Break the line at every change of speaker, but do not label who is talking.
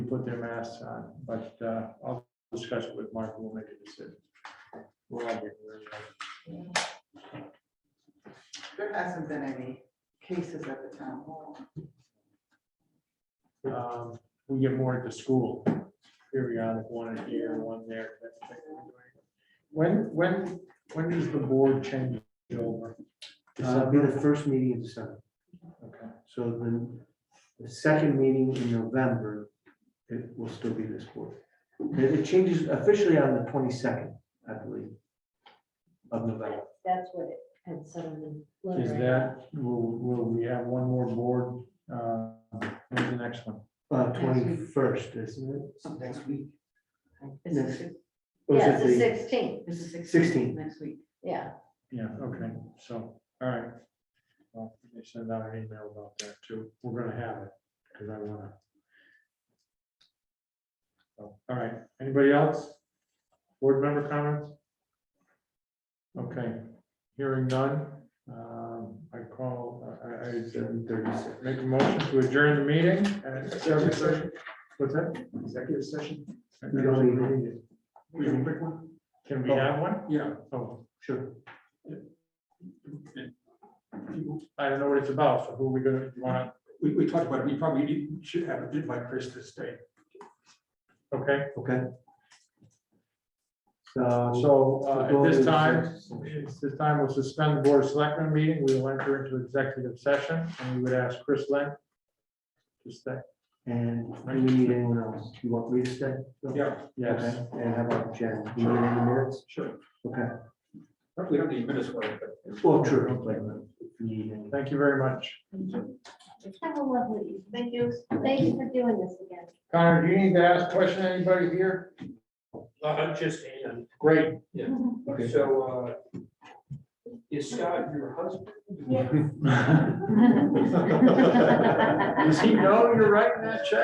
put their masks on, but uh, I'll discuss it with Mark, we'll make a decision. We're all getting very old.
There hasn't been any cases at the town hall.
Um, We get more at the school, periodic, one here, one there. that type of thing. When, when, when does the board change over?
Uh, Be the first meeting in December.
Okay,
So then the second meeting in November, it will still be this quarter. It it changes officially on the twenty-second, I believe, of November.
That's what it had said on the letter.
is that, will, will we have one more board, uh, when's the next one?
Uh, twenty-first, isn't it?
So Next week.
Is it-
Next- or is
Yeah, it's
it
the
the-
sixteenth,
This is
16.
Next week.
yeah.
Yeah, okay, so, all right. Well, They send out an email about that too. We're gonna have it, because I wanna. So, All right, anybody else? Board member comments? Okay, hearing none. Um, I call, I, I- I
7:36.
make a motion to adjourn the meeting. at executive session. What's that? Executive session?
We don't
We can pick one. Can we have one? Yeah. Oh.
Sure.
I don't know what it's about, so who are we gonna, you wanna,
We, we talked about it, we probably didn't- should have, did like Chris to stay.
okay,
Okay. So.
so
the
uh,
goal
at this
Um, is, uh,
time, it's this time we'll suspend the board of selectmen meeting, we will enter into executive session, and we would ask Chris Lynn to stay,
And do you need anyone else? You want me to stay? Bill?
Yeah,
yes.
Okay, And how about Jen? Do you need any minutes?
sure.
Okay.
Hopefully, we don't need minutes for it, but.
Well, true. but if you need any.
Thank you very much.
Have a lovely evening. Thank you. Thank you for doing this again.
Connor, do you need to ask a question, anybody here?
Uh, I'm just, and
Great,
Okay.
so, uh, is Scott your husband?
Yes.
does he know you're writing that check?